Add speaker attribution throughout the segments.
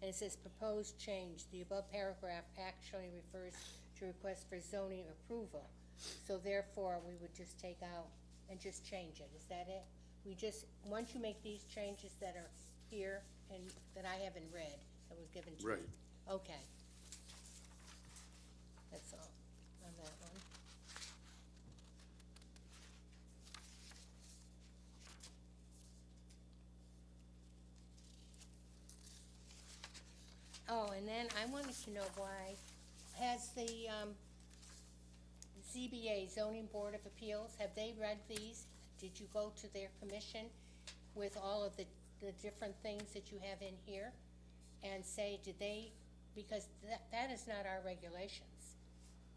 Speaker 1: and it says proposed change. The above paragraph actually refers to request for zoning approval. So therefore, we would just take out and just change it. Is that it? We just, once you make these changes that are here and that I haven't read, that was given to me.
Speaker 2: Right.
Speaker 1: Okay. That's all on that one. Oh, and then I wanted to know why, has the, um, ZBA, Zoning Board of Appeals, have they read these? Did you go to their commission with all of the, the different things that you have in here? And say, did they, because that, that is not our regulations.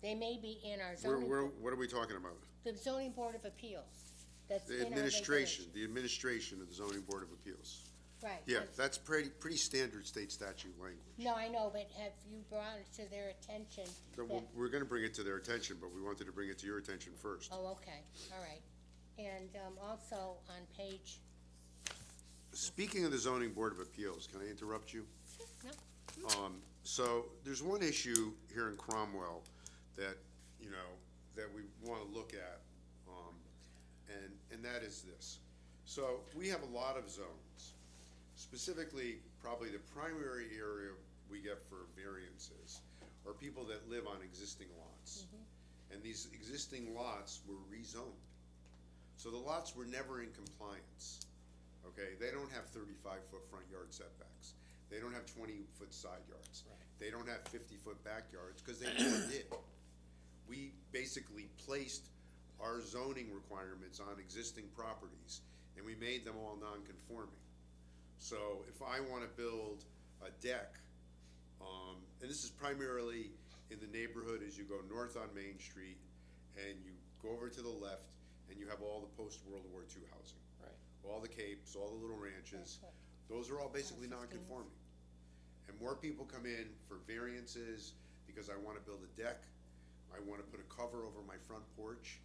Speaker 1: They may be in our
Speaker 2: Where,
Speaker 1: zoning,
Speaker 2: where,
Speaker 1: bo-
Speaker 2: what are we talking about?
Speaker 1: the Zoning Board of Appeals, that's in
Speaker 2: The
Speaker 1: our
Speaker 2: administration,
Speaker 1: regulations.
Speaker 2: the administration of the zoning board of appeals.
Speaker 1: Right.
Speaker 2: Yeah,
Speaker 1: that's-
Speaker 2: that's pretty, pretty standard state statute language.
Speaker 1: No, I know, but have you brought it to their attention?
Speaker 2: So
Speaker 1: that-
Speaker 2: we're, we're gonna bring it to their attention, but we wanted to bring it to your attention first.
Speaker 1: Oh, okay, all right. And um, also on page,
Speaker 2: Speaking of the zoning board of appeals, can I interrupt you?
Speaker 1: no,
Speaker 2: Um, so there's one issue here in Cromwell that, you know, that we wanna look at, um, and, and that is this. So we have a lot of zones. Specifically, probably the primary area we get for variances are people that live on existing lots. And these existing lots were rezoned. So the lots were never in compliance, okay? They don't have thirty-five foot front yard setbacks. They don't have twenty-foot side yards. They don't have fifty-foot backyards, because they never did. We basically placed our zoning requirements on existing properties, and we made them all non-conforming. So if I wanna build a deck, um, and this is primarily in the neighborhood as you go north on Main Street, and you go over to the left, and you have all the post-World War II housing.
Speaker 3: Right.
Speaker 2: All the capes, all the little ranches,
Speaker 1: That's
Speaker 2: those are all basically
Speaker 1: Houses, things.
Speaker 2: non-conforming. And more people come in for variances, because I wanna build a deck, I wanna put a cover over my front porch,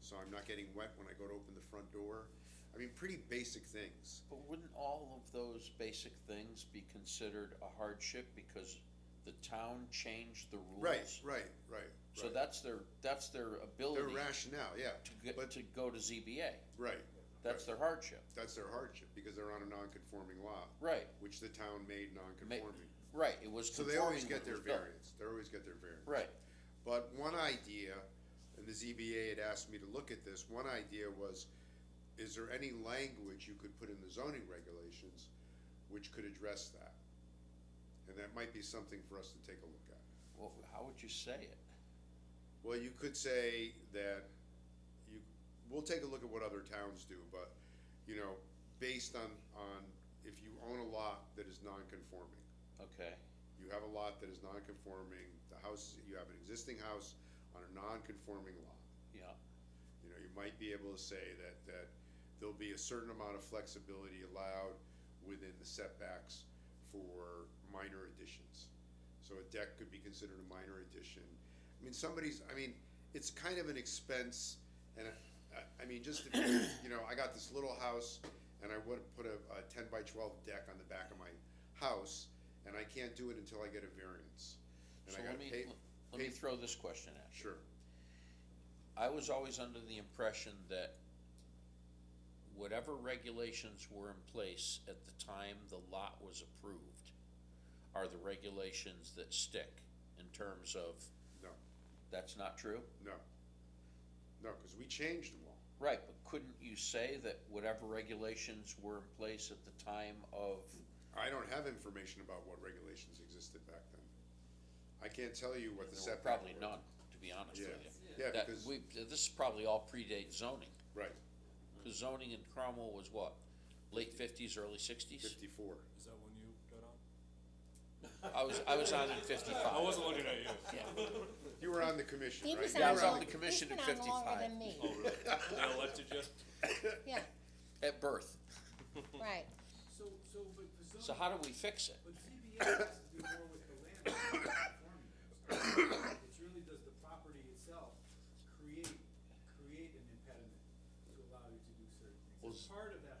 Speaker 2: so I'm not getting wet when I go to open the front door. I mean, pretty basic things.
Speaker 3: But wouldn't all of those basic things be considered a hardship because the town changed the rules?
Speaker 2: Right, right, right, right.
Speaker 3: So that's their, that's their
Speaker 2: Their
Speaker 3: ability
Speaker 2: rationale, yeah,
Speaker 3: to get,
Speaker 2: but,
Speaker 3: to go to ZBA.
Speaker 2: right.
Speaker 3: That's
Speaker 2: right.
Speaker 3: their hardship.
Speaker 2: That's their hardship, because they're on a non-conforming lot,
Speaker 3: Right,
Speaker 2: which the town made
Speaker 3: ma-
Speaker 2: non-conforming.
Speaker 3: right, it was
Speaker 2: So they always
Speaker 3: conforming when
Speaker 2: get
Speaker 3: it
Speaker 2: their
Speaker 3: was built.
Speaker 2: variance, they always get their variance.
Speaker 3: Right,
Speaker 2: But one idea, and the ZBA had asked me to look at this, one idea was, is there any language you could put in the zoning regulations which could address that? And that might be something for us to take a look at.
Speaker 3: well, how would you say it?
Speaker 2: Well, you could say that you, we'll take a look at what other towns do, but, you know, based on, on, if you own a lot that is non-conforming,
Speaker 3: Okay,
Speaker 2: you have a lot that is non-conforming, the house, you have an existing house on a non-conforming lot.
Speaker 3: yeah,
Speaker 2: You know, you might be able to say that, that there'll be a certain amount of flexibility allowed within the setbacks for minor additions. So a deck could be considered a minor addition. I mean, somebody's, I mean, it's kind of an expense, and I- I, I mean, just if, you you know, I got this little house, and I would put a, a ten by twelve deck on the back of my house, and I can't do it until I get a variance. And
Speaker 3: so
Speaker 2: I gotta
Speaker 3: let me,
Speaker 2: pay,
Speaker 3: let me
Speaker 2: pay-
Speaker 3: throw this question at you.
Speaker 2: sure,
Speaker 3: I was always under the impression that whatever regulations were in place at the time the lot was approved are the regulations that stick in terms of,
Speaker 2: no,
Speaker 3: that's not true?
Speaker 2: no. No, cause we changed them all.
Speaker 3: Right, but couldn't you say that whatever regulations were in place at the time of,
Speaker 2: I don't have information about what regulations existed back then. I can't tell you what the
Speaker 3: there were
Speaker 2: setback.
Speaker 3: probably
Speaker 2: were.
Speaker 3: none, to be honest with
Speaker 2: Yeah,
Speaker 3: you.
Speaker 2: yeah,
Speaker 3: That,
Speaker 2: because,
Speaker 3: we, this is probably all predates zoning,
Speaker 2: right,
Speaker 3: cause zoning in Cromwell was what, late fifties, early sixties?
Speaker 2: fifty-four.
Speaker 4: Is that when you got on?
Speaker 3: I was, I was on in fifty-five.
Speaker 4: I wasn't looking at you.
Speaker 2: You were on the commission,
Speaker 1: he
Speaker 2: right?
Speaker 1: was
Speaker 2: You
Speaker 1: on.
Speaker 3: Yeah, I
Speaker 2: were
Speaker 3: was on
Speaker 1: long-
Speaker 3: the commission
Speaker 1: he's
Speaker 3: at
Speaker 1: been on longer
Speaker 3: 55.
Speaker 1: than me,
Speaker 4: Oh, really? They elected you?
Speaker 1: yeah,
Speaker 3: At birth.
Speaker 1: right.
Speaker 5: So, so, but
Speaker 3: So
Speaker 5: for zoning,
Speaker 3: how do we fix it?
Speaker 5: but ZBA has to do more with the land than the conforming use. It's really does the property itself create, create an impediment to allow you to do certain
Speaker 3: Well,
Speaker 5: things. It's part of that